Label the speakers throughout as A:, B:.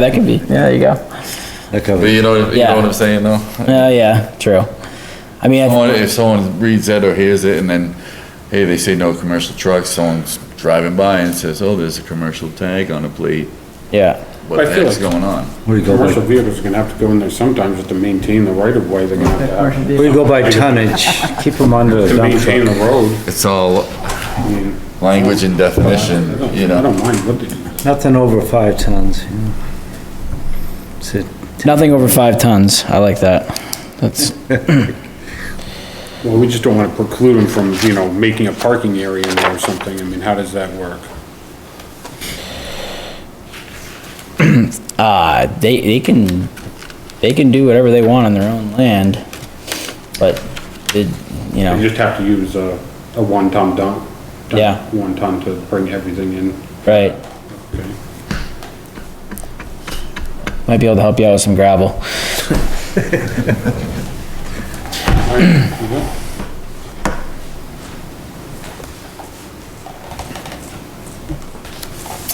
A: That could be, yeah, there you go.
B: That
C: But
B: covers,
C: you know, you
A: Yeah.
C: know what I'm saying though?
A: Oh, yeah, true. I mean, I
C: Someone-
A: think-
C: If someone reads that or hears it and then, hey, they say no commercial trucks, someone's driving by and says, oh, there's a commercial tag on a plate,
A: yeah,
C: what the
D: I feel
C: heck's
D: like-
C: going on?
B: where do you go
D: Commercial
B: by,
D: vehicles are gonna have to go in there sometimes just to maintain the right of way, they're gonna have to,
B: where you go by tonnage, keep them under the
D: to
B: dump
D: maintain
B: truck.
D: the road.
C: It's all
D: I mean,
C: language and
D: I
C: definition,
D: don't,
C: you
D: I
C: know?
D: don't mind what they do.
B: Nothing over five tons, you know. It's a-
A: nothing over five tons, I like that. That's,
D: Well, we just don't wanna preclude them from, you know, making a parking area in there or something, I mean, how does that work?
A: uh, they, they can, they can do whatever they want on their own land, but it, you
D: You
A: know,
D: just have to use a, a one-ton dump. dump,
A: Yeah.
D: One ton to bring everything in,
A: right,
D: okay?
A: might be able to help you out with some gravel.
D: Uh-huh.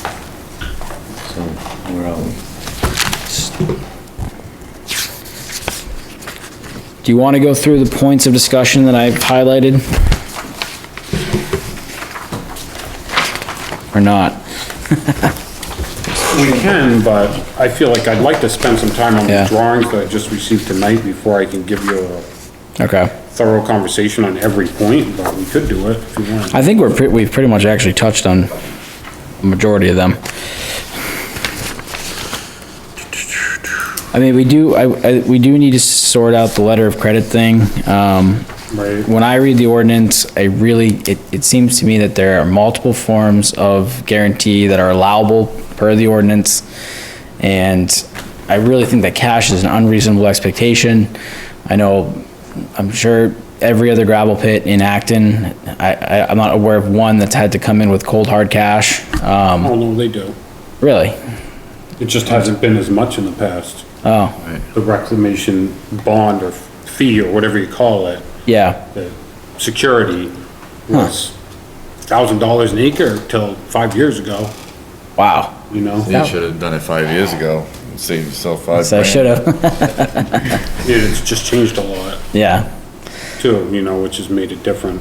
B: So, where are we?
A: Do you want to go through the points of discussion that I've highlighted? Or not?
D: We can, but I feel like I'd like to spend some time on
A: Yeah.
D: the drawings that I just received tonight before I can give you a
A: Okay.
D: thorough conversation on every point, but we could do it if you want.
A: I think we're, pre- we've pretty much actually touched on the majority of them. I mean, we do, I, I, we do need to sort out the letter of credit thing. Um,
D: Right.
A: when I read the ordinance, I really, it, it seems to me that there are multiple forms of guarantee that are allowable per the ordinance. And I really think that cash is an unreasonable expectation. I know, I'm sure every other gravel pit in Acton, I, I, I'm not aware of one that's had to come in with cold hard cash. Um,
D: Oh, no, they do.
A: really?
D: It just hasn't been as much in the past.
A: Oh,
D: The reclamation bond or fee or whatever you call it,
A: yeah,
D: the security was thousand dollars an acre till five years ago,
A: wow.
D: you know?
C: You should have done it five years ago, saved yourself five
A: So I
C: grand.
A: should have,
D: It's just changed a lot
A: yeah.
D: too, you know, which has made it different.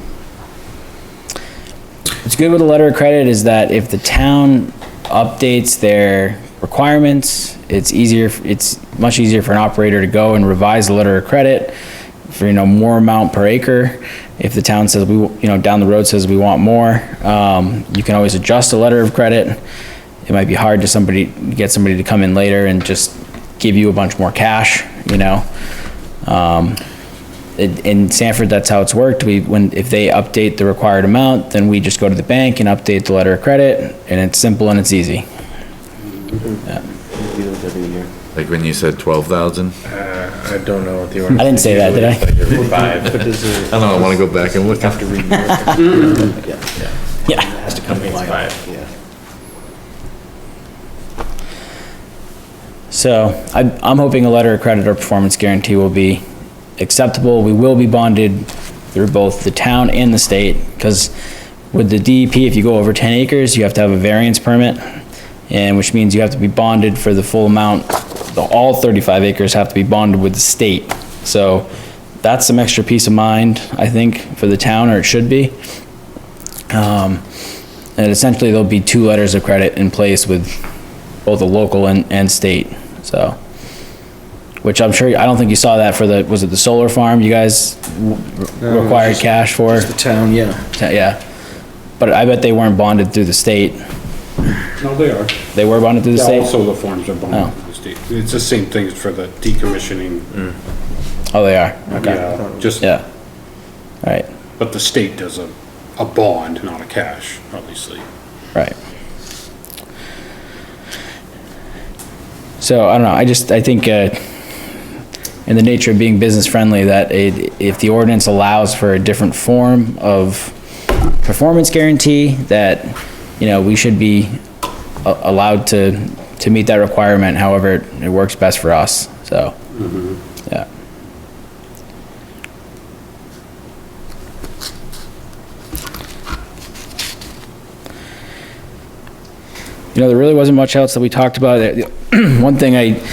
A: What's good with a letter of credit is that if the town updates their requirements, it's easier, it's much easier for an operator to go and revise the letter of credit for, you know, more amount per acre. If the town says, we, w- you know, down the road says we want more, um, you can always adjust a letter of credit. It might be hard to somebody, get somebody to come in later and just give you a bunch more cash, you know? in- in Sanford, that's how it's worked. We, when, if they update the required amount, then we just go to the bank and update the letter of credit, and it's simple and it's easy.
C: Like when you said twelve thousand?
E: I don't know what the
A: I
E: order.
A: didn't say that, did I?
E: Five.
C: I don't know, I wanna go back and look. After reading.
A: Yeah.
E: Has to come in five. Yeah.
A: So I, I'm hoping a letter of credit or performance guarantee will be acceptable. We will be bonded through both the town and the state, because with the DEP, if you go over 10 acres, you have to have a variance permit, and which means you have to be bonded for the full amount. The- All 35 acres have to be bonded with the state. So that's some extra peace of mind, I think, for the town, or it should be. Um, And essentially, there'll be two letters of credit in place with both the local and, and state, so. Which I'm sure, I don't think you saw that for the, was it the solar farm you guys w- required cash for?
E: The town, yeah.
A: Ta- Yeah, but I bet they weren't bonded through the state.
D: No, they are.
A: They were bonded through the Oh.
D: Yeah, all
A: state?
D: solar farms are bonded to the state. It's the same thing for the decommissioning.
A: Oh, they are, okay,
D: Yeah, just,
A: yeah. Right,
D: but the state does a, a bond, not a cash, obviously.
A: right. So, I don't know, I just, I think, uh, in the nature of being business friendly, that it, if the ordinance allows for a different form of performance guarantee, that, you know, we should be a- allowed to, to meet that requirement however it works best for us, so, yeah. you know, there really wasn't much else that we talked about. The- One thing I